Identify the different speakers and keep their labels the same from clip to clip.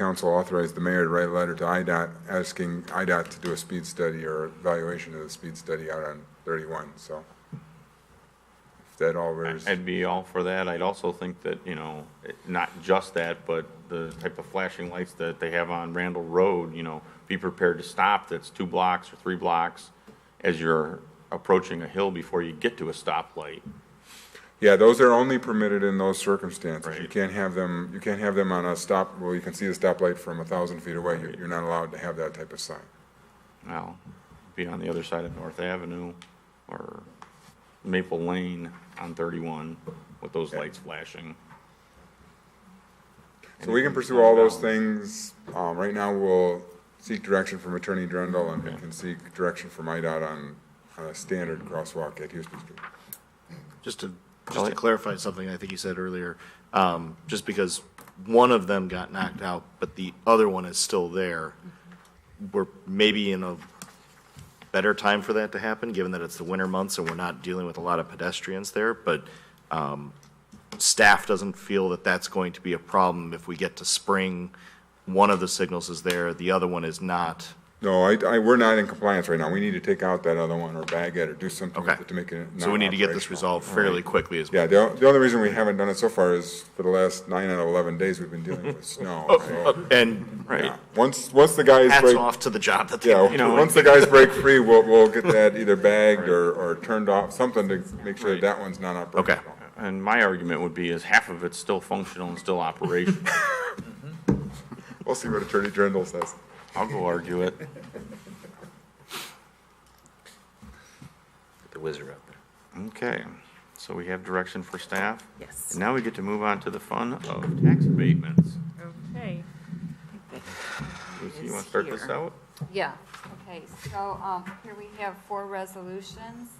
Speaker 1: council authorized the mayor to write a letter to IDOT asking IDOT to do a speed study or evaluation of the speed study out on 31, so. If that all
Speaker 2: I-
Speaker 1: wears,
Speaker 2: I'd be all for that. I'd also think that, you know, it- not just that, but the type of flashing lights that they have on Randall Road, you know, be prepared to stop that's two blocks or three blocks as you're approaching a hill before you get to a stoplight.
Speaker 1: yeah, those are only permitted in those circumstances. You
Speaker 2: Right.
Speaker 1: can't have them, you can't have them on a stop, well, you can see the stoplight from a 1,000 feet away. You're- You're not allowed to have that type of sign.
Speaker 2: Now, be on the other side of North Avenue or Maple Lane on 31 with those lights flashing.
Speaker 1: So we can pursue all those things. Um, right now, we'll seek direction from Attorney Drendel and we can seek direction from IDOT on, on a standard crosswalk at Houston Street.
Speaker 3: Just to, just to
Speaker 2: Elliot?
Speaker 3: clarify something I think you said earlier, um, just because one of them got knocked out, but the other one is still there, we're maybe in a better time for that to happen, given that it's the winter months and we're not dealing with a lot of pedestrians there, but, um, staff doesn't feel that that's going to be a problem if we get to spring, one of the signals is there, the other one is not.
Speaker 1: No, I, I, we're not in compliance right now. We need to take out that other one or bag it or do something with
Speaker 3: Okay.
Speaker 1: it to make it.
Speaker 3: So we need to get this
Speaker 1: non-operational.
Speaker 3: resolved fairly quickly as well.
Speaker 1: Yeah, the, o- the only reason we haven't done it so far is for the last nine out of 11 days, we've been dealing with snow. so,
Speaker 3: And
Speaker 2: Right.
Speaker 1: yeah. Once, once the guys
Speaker 3: hats
Speaker 1: break,
Speaker 3: off to the job that they
Speaker 1: yeah,
Speaker 2: You know,
Speaker 1: once the guys break free, we'll, we'll get that either bagged or, or turned off, something to make sure that that one's not operational.
Speaker 3: Okay.
Speaker 2: And my argument would be is half of it's still functional and still operational.
Speaker 1: We'll see what Attorney Drendel says.
Speaker 2: I'll go argue it.
Speaker 4: the wizard up there.
Speaker 2: Okay, so we have direction for staff.
Speaker 5: Yes.
Speaker 2: And now we get to move on to the fun of tax abatements.
Speaker 5: Okay.
Speaker 2: Lucy, you want to start this out?
Speaker 6: Yeah, okay, so, um, here we have four resolutions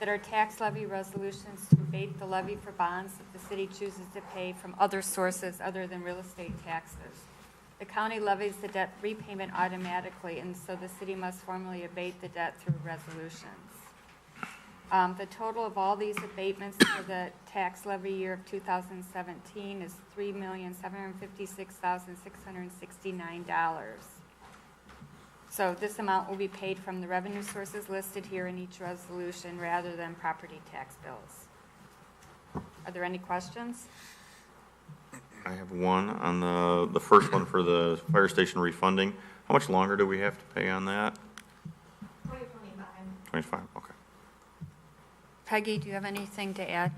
Speaker 6: that are tax levy resolutions to abate the levy for bonds that the city chooses to pay from other sources other than real estate taxes. The county levies the debt repayment automatically, and so the city must formally abate the debt through resolutions. Um, The total of all these abatements for the tax levy year of 2017 is $3,756,669. So this amount will be paid from the revenue sources listed here in each resolution rather than property tax bills. Are there any questions?
Speaker 2: I have one on the, the first one for the fire station refunding. How much longer do we have to pay on that? Twenty-five, okay.
Speaker 6: Peggy, do you have anything to add?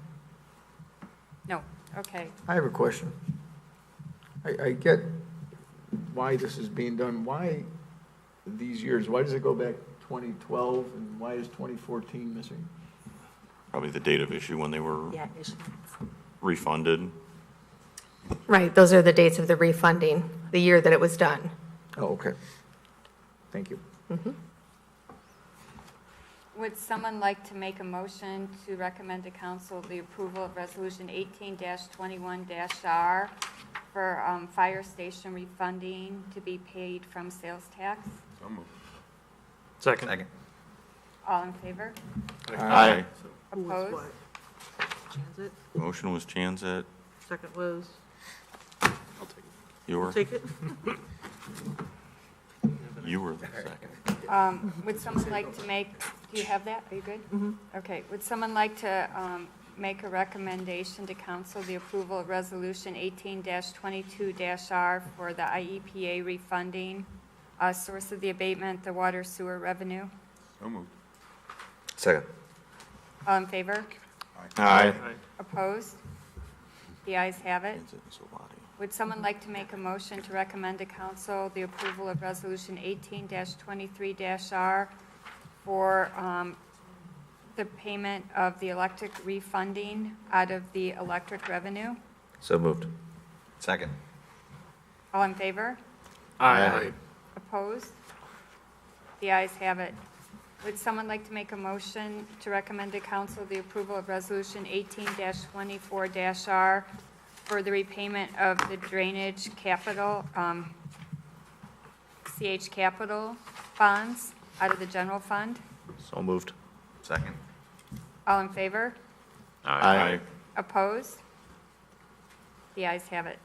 Speaker 6: No, okay.
Speaker 7: I have a question. I, I get why this is being done. Why these years? Why does it go back 2012 and why is 2014 missing?
Speaker 2: Probably the date of issue when they were
Speaker 5: Yeah, issue.
Speaker 2: refunded.
Speaker 8: Right, those are the dates of the refunding, the year that it was done.
Speaker 7: Oh, okay. Thank you.
Speaker 6: Would someone like to make a motion to recommend to council the approval of Resolution 18-21-R for um, fire station refunding to be paid from sales tax?
Speaker 4: Second.
Speaker 6: All in favor?
Speaker 2: Aye.
Speaker 6: Opposed?
Speaker 5: Transit,
Speaker 2: Motion was Chanzat,
Speaker 5: second was,
Speaker 2: you were,
Speaker 5: take it.
Speaker 2: you were the second.
Speaker 6: Um, Would someone like to make, do you have that? Are you good? Okay. Would someone like to um, make a recommendation to council the approval of Resolution 18-22-R for the IEPA refunding, uh, source of the abatement, the water sewer revenue?
Speaker 1: So moved.
Speaker 4: Second.
Speaker 6: All in favor?
Speaker 2: Aye.
Speaker 6: Opposed? The ayes have it.
Speaker 2: Chanzat and Solati.
Speaker 6: Would someone like to make a motion to recommend to council the approval of Resolution 18-23-R for um, the payment of the electric refunding out of the electric revenue?
Speaker 4: So moved. Second.
Speaker 6: All in favor?
Speaker 4: Aye.
Speaker 6: Opposed? The ayes have it. Would someone like to make a motion to recommend to council the approval of Resolution 18-24-R for the repayment of the drainage capital, um, CH capital bonds out of the general fund?
Speaker 3: So moved.
Speaker 4: Second.
Speaker 6: All in favor?
Speaker 3: Aye.
Speaker 6: Opposed? The ayes have it.